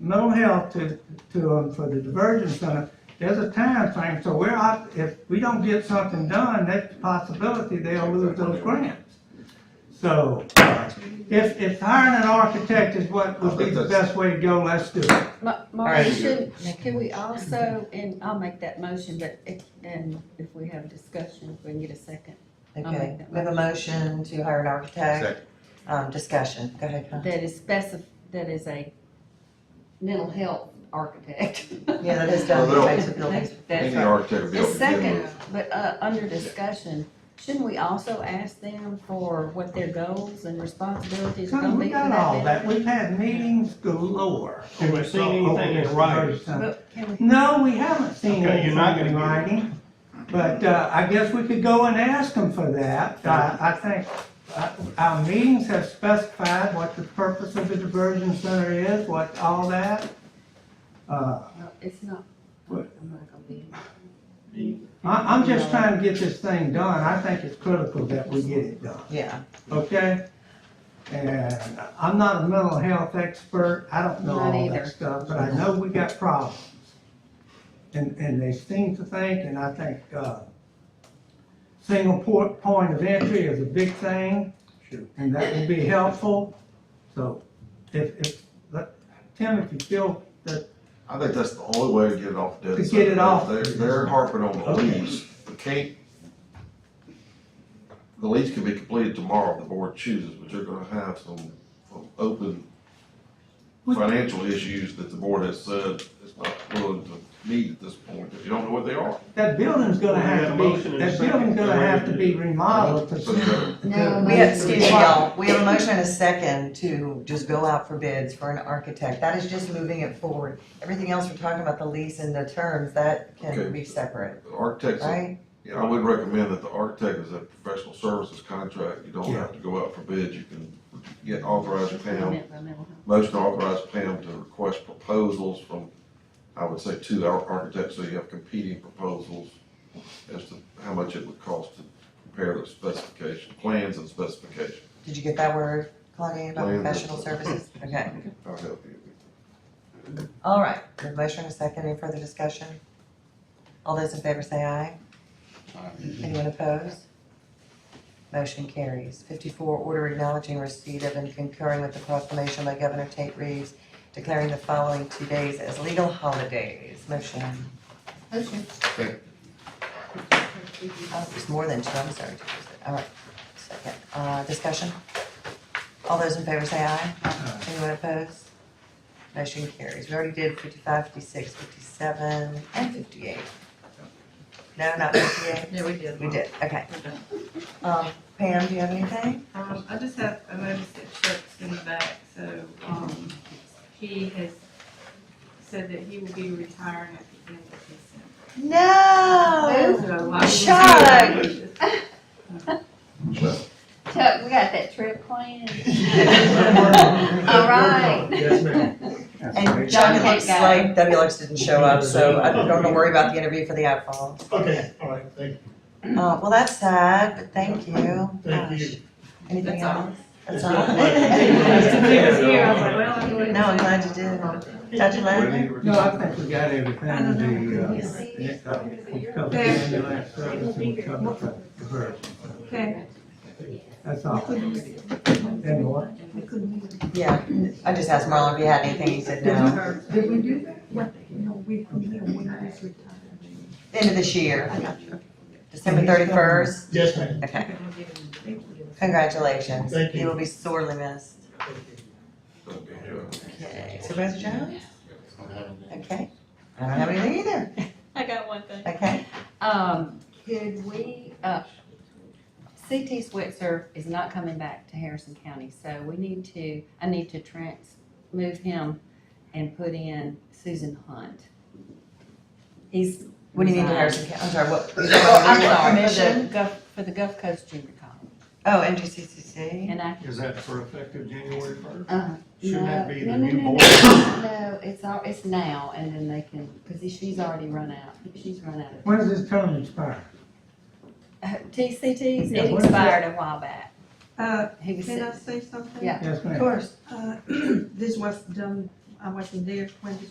mental health to, to, um, for the diversion center, there's a time frame, so we're out, if we don't get something done, that's a possibility they'll lose those grants. So, uh, if, if hiring an architect is what would be the best way to go, let's do it. Ma- Maureen, should, can we also, and I'll make that motion, but if, then if we have a discussion, if we can get a second, I'll Okay, make that we have a motion to hire an architect, Second. um, discussion, go ahead, Connie. that is specif, that is a mental health architect. Yeah, that is done, Well, types of buildings. That's Any right. architect would be The able to deal second, with but, uh, under discussion, shouldn't we also ask them for what their goals and responsibilities Come, are gonna we be for got all that? that, we've had meetings galore. Have we seen over anything in this writing? diversion center. But can we, No, we haven't seen Okay, you're not anything in gonna writing, but, uh, I guess we could go and ask them for that. I, I think, uh, our meetings have specified what the purpose of the diversion center is, what, all that. Uh, no, it's not, What? I'm not gonna be. I, I'm just trying to get this thing done, I think it's critical that we get it done. Yeah, okay? And I'm not a mental health expert, I don't know Not all either. that stuff, but I know we got problems. And, and they seem to think, and I think, uh, single port, point of entry is a big thing. Sure. And that will be helpful, so if, if, let- Tim, if you feel, I think that's the only way to get it off dead. To center. get it off. They're, they're harping on the Okay. lease, but can't, the lease can be completed tomorrow if the board chooses, but you're gonna have some some open We- financial issues that the board has said it's not willing to meet at this point, if you don't know what they are. that building's gonna We had have a to motion be, and a that second. building's gonna They're ready have to to be do it. remodeled to. So, yeah. No, we have, excuse me, Well- y'all, we have a motion and a second to just go out for bids for an architect, that is just moving it forward. Everything else, we're talking about the lease and the terms, that Okay. can be separate, The Architects, right? yeah, I would recommend that the architect is a professional services contract, you don't have to go out for bid, you can get authorized Pam Motion to authorize Pam to request proposals from, I would say, two ar- architects, so you have competing proposals as to how much it would cost to prepare the specification, plans and specification. Did you get that word, Claudia, about Well, yeah. professional services? Okay, I'll help you. all right, we have a motion and a second, any further discussion? All those in favor say aye. Anyone opposed? Motion carries. Fifty-four, order acknowledging receipt of and concurring with the proclamation by Governor Tate Reeves declaring the following two days as legal holidays. Motion, Motion. oh, it's more than two, I'm sorry. two days. All right, second, uh, discussion? All those in favor say aye. Anyone opposed? Motion carries. We already did 55, 56, 57, and fifty-eight. No, not fifty-eight? Yeah, we did. We did, okay. We're done. Um, Pam, do you have anything? Um, I just have a notice that Chuck's in the back, so, um, he has said that he will be retiring at the end of No! December. So I will- Chuck! Chuck, we got that trip planned. All right. Yes, ma'am. And John, it looks Okay. like Debbie Lux didn't show up, so I don't have to worry about the interview for the iPhone. Okay, all right, thank, Uh, well, that's sad, but thank you. thank you. Anything That's all. else? That's It's all. not like- I was here, I was like, well, I'm going. No, I'm glad you did. Dr. Lavin? No, I think we got everything to do, uh, uh, we covered the ambulance service and we covered the diversion. Okay, That's all. And what? Yeah, I just asked Marlon if he had anything, he said no. Did we do that? What, no, we, we, we just retired. End of this year, December thirty-first. Yes, ma'am. Okay, okay, we'll give him- congratulations. Thank you. will be sorely missed. Okay, Supervisor Jones? Okay, I don't have anything either. I got one thing. Okay, Um, could we, uh, CT Switzer is not coming back to Harrison County, so we need to, I need to trans, move him and put in Susan Hunt. He's. what do you mean to resigned. Harrison County? I'm sorry, what? Oh, I'm sorry, for Permission? the Gulf, for the Gulf Coast Junior College, Oh, NGCCC. and I, Is that for effective January first? uh, Shouldn't that no, be no, the no, new no, board? no, No, it's all, it's now, and then they can, cause she's already run out, she's run out of When does this term expire? TCTs, Yeah, it what is that? expired a while back. Uh, He was can I sitting, say something? Yeah. Yes, Of ma'am. course. Uh, this was done I wasn't there when the